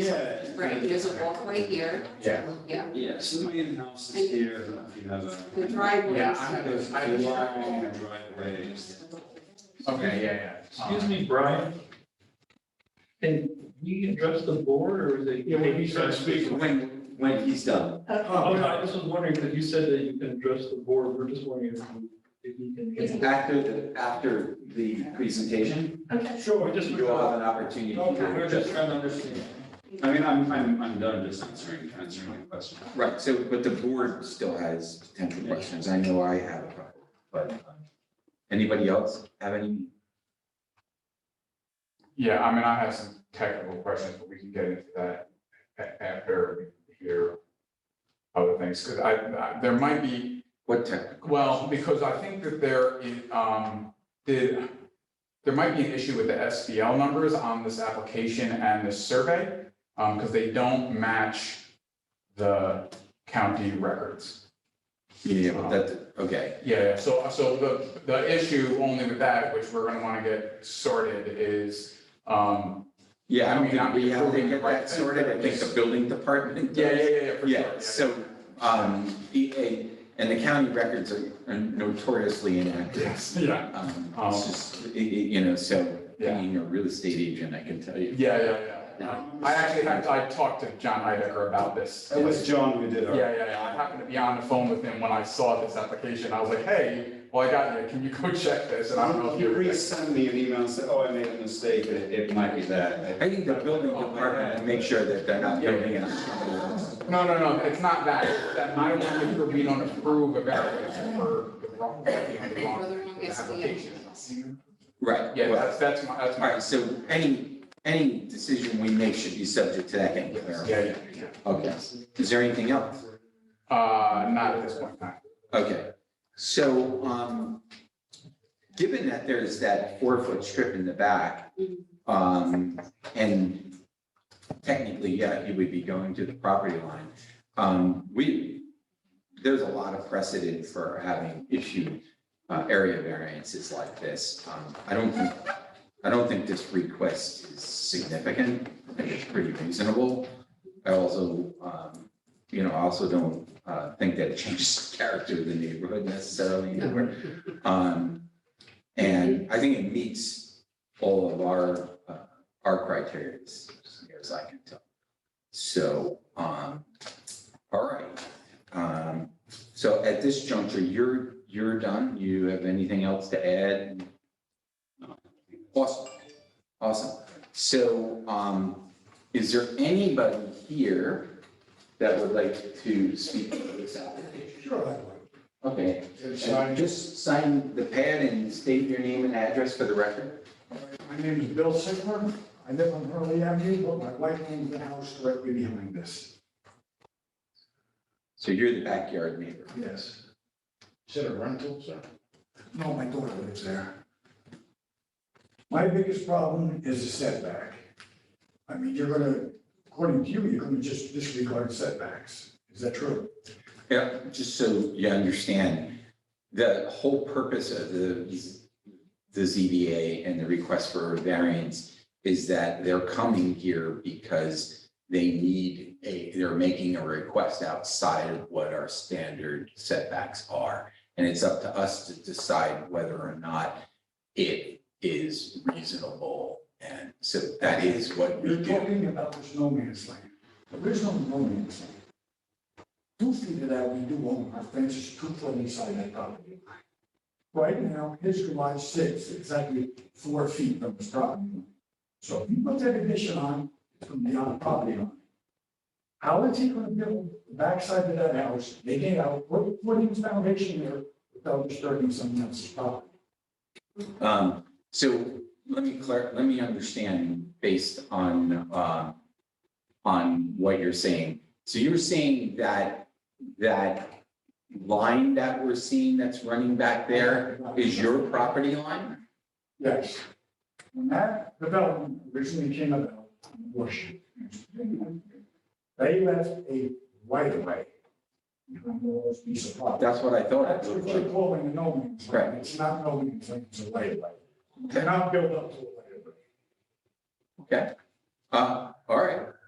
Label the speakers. Speaker 1: Yeah.
Speaker 2: Right, there's a walkway here,
Speaker 3: Yeah.
Speaker 2: yeah,
Speaker 1: Yeah, so the main house is here, and if you have a.
Speaker 2: the driveway.
Speaker 3: Yeah,
Speaker 2: is
Speaker 3: I have
Speaker 2: here.
Speaker 3: this- I have
Speaker 1: The
Speaker 3: this-
Speaker 1: line and the driveway is-
Speaker 3: Okay, yeah, yeah.
Speaker 4: Excuse me, Brian. Can we address the board or is it?
Speaker 5: Yeah, when you start speaking.
Speaker 3: When, when he's done.
Speaker 4: Oh, no, I just was wondering, because you said that you can address the board, we're just wondering if you- if you can.
Speaker 3: After, the- after the presentation,
Speaker 4: Sure, we just.
Speaker 3: you all have an opportunity. to-
Speaker 4: Okay, we're just trying to understand.
Speaker 1: I mean, I'm, I'm, I'm done just answering, answering the question.
Speaker 3: Right, so, but the board still has potential questions. I know I have a couple, but um, anybody else have any?
Speaker 6: Yeah, I mean, I have some technical questions, but we can get into that a- after we hear other things, because I, I- there might be,
Speaker 3: What technical?
Speaker 6: well, because I think that there is, um, did, there might be an issue with the SBL numbers on this application and this survey, um, because they don't match the county records.
Speaker 3: Yeah,
Speaker 6: Uh-huh.
Speaker 3: but that, okay,
Speaker 6: Yeah, so, so the, the issue only with that, which we're gonna wanna get sorted, is, um,
Speaker 3: yeah, I
Speaker 6: I
Speaker 3: don't
Speaker 6: mean,
Speaker 3: think
Speaker 6: I'm
Speaker 3: we have to
Speaker 6: approving the
Speaker 3: get
Speaker 6: right
Speaker 3: that
Speaker 6: thing.
Speaker 3: sorted. I think the building department.
Speaker 6: yeah,
Speaker 3: does.
Speaker 6: yeah, yeah, yeah, for sure.
Speaker 3: Yeah, so, um, the- a- and the county records are are notoriously inactive.
Speaker 6: Yes, yeah,
Speaker 3: Um,
Speaker 6: Um,
Speaker 3: It's just, i- i- you know, so
Speaker 6: Yeah.
Speaker 3: being a real estate agent, I can tell
Speaker 6: yeah,
Speaker 3: you.
Speaker 6: yeah, yeah. I actually, had- I talked to John Heidecker about this.
Speaker 1: It Oh, was John who did
Speaker 6: Yeah,
Speaker 1: our.
Speaker 6: yeah, yeah, I happened to be on the phone with him when I saw this application, I was like, hey, well, I got you, can you go check this, and I don't know if
Speaker 1: You
Speaker 6: you're.
Speaker 1: resend me an email and say, oh, I made a mistake, it, it might be that.
Speaker 3: I think the building department to make sure that they're not building on somebody else.
Speaker 6: No, no, no, it's not that, It's that I don't think we're- we don't approve a variance for the wrong, the wrong
Speaker 2: Whether or not it's the-
Speaker 6: application.
Speaker 3: Right,
Speaker 6: Yeah,
Speaker 3: well,
Speaker 6: that's, that's my, that's
Speaker 3: all
Speaker 6: my.
Speaker 3: right, so any, any decision we make should be subject to that getting clarified.
Speaker 6: Yeah, yeah, yeah.
Speaker 3: Okay, is there anything else?
Speaker 6: Uh, not at this point, no.
Speaker 3: Okay, so, um, given that there's that four-foot strip in the back, um, and technically, yeah, he would be going to the property line. Um, we, there's a lot of precedent for having issued, uh, area variances like this. Um, I don't think, I don't think this request is significant, I think it's pretty reasonable. I also, um, you know, I also don't uh, think that it changes the character of the neighborhood necessarily anymore. Um, and I think it meets all of our, uh, our criteria as near as I can tell. So, um, all right. Um, so at this juncture, you're, you're done. You have anything else to add? Awesome. Awesome. So, um, is there anybody here that would like to speak to this application?
Speaker 5: Sure, I
Speaker 3: Okay, and just sign the pad and state your name and address for the record.
Speaker 5: My name is Bill Sigler. I live on Hurley Avenue, but my wife owns the house directly behind us.
Speaker 3: So you're the backyard neighbor.
Speaker 5: Yes.
Speaker 7: Is it a rental, sir?
Speaker 5: No, my daughter lives there. My biggest problem is the setback. I mean, you're gonna, according to you, you're gonna just disregard setbacks. Is that true?
Speaker 3: Yeah, just so you understand, the whole purpose of the, the ZBA and the request for variance is that they're coming here because they need a, they're making a request outside of what our standard setbacks are. And it's up to us to decide whether or not it is reasonable. And so that is what we
Speaker 5: You're
Speaker 3: do.
Speaker 5: talking about this no man's land. There is no no man's land. Two feet of that we do own, our fence is two foot inside that property line. Right now, his garage sits exactly four feet from his property line. So if you put that addition on, it's from beyond the property line. How is he gonna build the backside of that house, dig it out, put, put his foundation there without disturbing someone else's property?
Speaker 3: Um, so let me clar, let me understand based on, um, on what you're saying. So you're saying that, that line that we're seeing that's running back there is your property line?
Speaker 5: Yes. When that development originally came about, Bush. They left a right of way. This piece of property.
Speaker 3: That's what I thought it
Speaker 5: That's what
Speaker 3: looked
Speaker 5: they're
Speaker 3: like.
Speaker 5: calling a no man's land.
Speaker 3: Right.
Speaker 5: It's not no man's land, it's a right of way. They're not built up to a right of way.
Speaker 3: Okay. Uh, all right.